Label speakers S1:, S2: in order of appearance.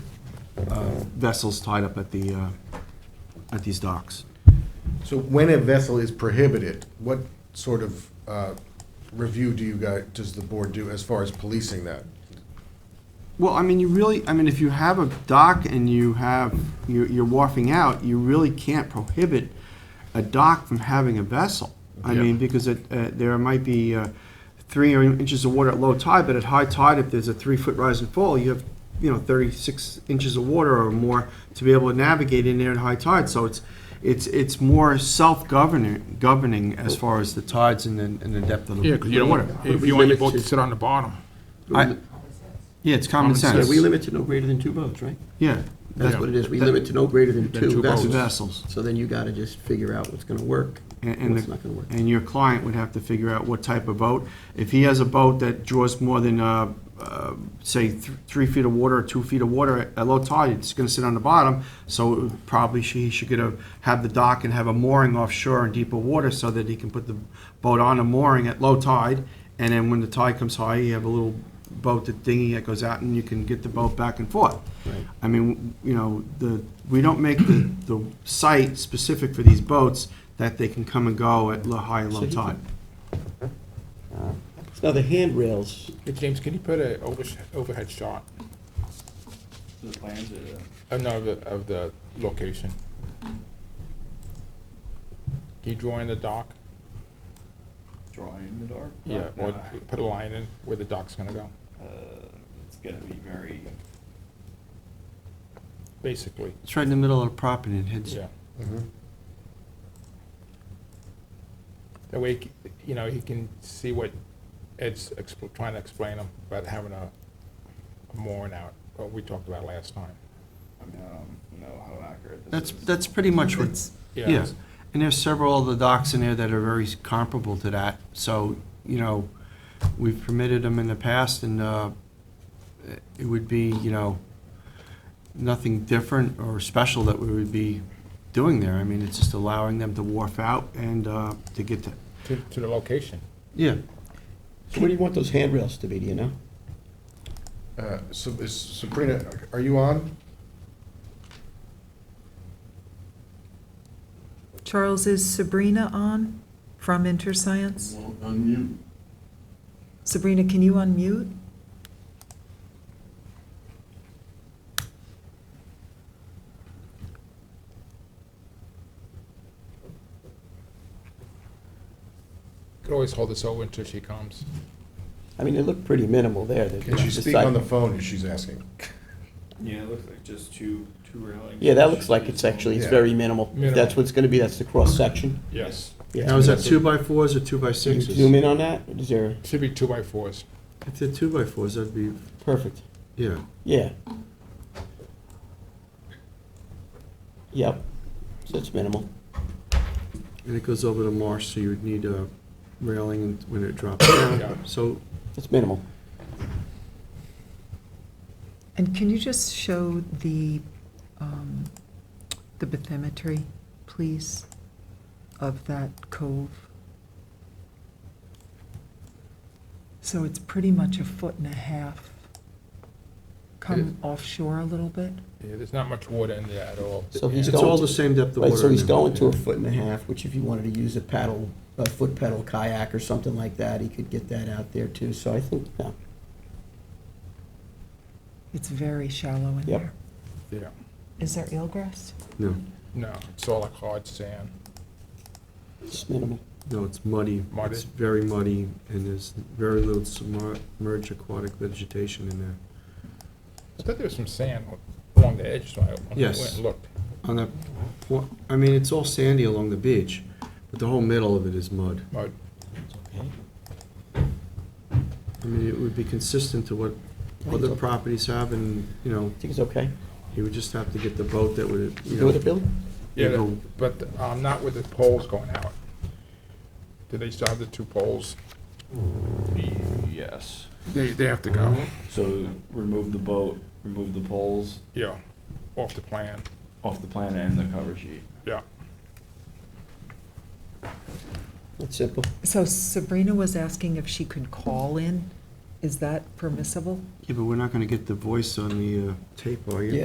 S1: uh, vessels tied up at the, uh, at these docks.
S2: So when a vessel is prohibited, what sort of uh, review do you guys, does the board do as far as policing that?
S1: Well, I mean, you really, I mean, if you have a dock and you have, you're you're wharfing out, you really can't prohibit a dock from having a vessel. I
S2: Yeah.
S1: mean, because it, uh, there might be uh, three inches of water at low tide, but at high tide, if there's a three-foot rise and fall, you have, you know, 36 inches of water or more to be able to navigate in there at high tide. So it's, it's, it's more self-governing, governing as far as the tides and the and the depth of the
S3: Yeah, because you don't want,
S1: water.
S3: if you want your boat to sit on the bottom.
S1: I- Yeah, it's common
S3: Common sense.
S1: sense.
S4: So we limit to no greater than two boats, right?
S1: Yeah.
S4: That's
S3: Yeah.
S4: what it is. We
S1: That-
S4: limit to no greater than
S3: Than two
S4: two
S3: boats.
S4: vessels.
S1: Vessels.
S4: So then you gotta just figure out what's gonna work,
S1: And- And,
S4: what's
S1: the-
S4: not gonna work.
S1: and your client would have to figure out what type of boat. If he has a boat that draws more than, uh, uh, say, th- three feet of water or two feet of water at- at low tide, it's going to sit on the bottom. So it would probably she, he should get a, have the dock and have a mooring offshore in deeper water so that he can put the boat on a mooring at low tide. And then when the tide comes high, you have a little boat, the dinghy that goes out and you can get the boat back and forth. I mean, you know, the, we don't make the, the site specific for these boats that they can come and go at low, high and
S4: So
S1: low
S4: he
S1: tide.
S4: Now, the handrails,
S3: Hey, James, can you put a overs- overhead shot
S5: The plans are,
S3: of, no, of the, of the location? Can you draw in the dock?
S5: drawing in the dark?
S3: Yeah, or
S5: Uh,
S3: put a line in where the dock's gonna go,
S5: It's gonna be very,
S3: basically,
S1: It's right in the middle of the property and heads.
S3: yeah. Mm-hmm. That way, he c- you know, he can see what Ed's expl- trying to explain him about having a a mooring out, what we talked about last time.
S5: I mean, I don't know how accurate this
S1: That's,
S5: is.
S1: that's pretty much what, yeah.
S3: it's-
S1: And there's several other docks in there that are very comparable to that. So, you know, we've permitted them in the past and, uh, it would be, you know, nothing different or special that we would be doing there. I mean, it's just allowing them to wharf out and, uh, to get to,
S3: To, to the location.
S1: yeah.
S4: so what do you want those handrails to be, do you know?
S2: Uh, So is Sabrina, are you on?
S6: Charles, is Sabrina on from InterScience?
S7: Well, unmute.
S6: Sabrina, can you unmute?
S3: Could always hold this over until she comes.
S4: I mean, they look pretty minimal there. the-
S2: Can she
S4: the
S2: speak
S4: side-
S2: on the phone, as she's asking?
S5: Yeah, it looks like just two, two railings.
S4: Yeah, that looks like it's actually, it's
S2: Yeah.
S4: very minimal. If That's
S3: Minimal.
S4: what's gonna be, that's the cross-section.
S3: Yes.
S4: Yeah.
S1: Now, is that two by fours or two by
S4: Can you
S1: sixes?
S4: zoom in on that? Is there,
S3: Should be two by fours.
S1: If they're two by fours, that'd be,
S4: perfect,
S1: yeah.
S4: yeah. Yep, so it's minimal.
S1: And it goes over the marsh, so you would need a railing and- when it drops down.
S3: Yeah.
S1: So,
S4: It's minimal.
S6: And can you just show the, um, the bathymetry, please, of that cove? So it's pretty much a foot and a half. Come offshore a little bit.
S3: Yeah, there's not much water in there at all.
S4: So he's
S1: it's
S3: Yeah.
S4: going-
S1: all the same depth of water.
S4: Right, so he's
S1: now.
S4: going to a foot and a half, which if you wanted to use a paddle, a foot pedal kayak or something like that, he could get that out there too, so I think, no.
S6: It's very shallow in
S4: Yep.
S6: there.
S3: Yeah,
S6: Is there eelgrass?
S1: No,
S3: no, it's all like hard sand.
S4: It's minimal.
S1: no, it's muddy.
S3: Muddy.
S1: It's very muddy, and there's very little submerged aquatic vegetation in there.
S3: I thought there was some sand along the edge, so I went
S1: Yes.
S3: and looked.
S1: On the, po- I mean, it's all sandy along the beach, but the whole middle of it is mud.
S3: But
S1: I mean, it would be consistent to what
S4: think
S1: other
S4: so.
S1: properties have, and, you know,
S4: I think it's okay.
S1: you would just have to get the boat that would, you
S4: You
S1: know.
S4: know what it, Bill?
S3: Yeah,
S1: go-
S3: but um, not with the poles going out. Do they still have the two poles?
S5: Yes.
S3: They, they have to go.
S5: So remove the boat, remove the poles
S3: Yeah, off the plan,
S5: off the plan and the cover sheet.
S3: yeah.
S4: It's simple.
S6: So Sabrina was asking if she could call in. Is that permissible?
S1: Yeah, but we're not gonna get the voice on the uh, tape, are you?
S4: Yeah,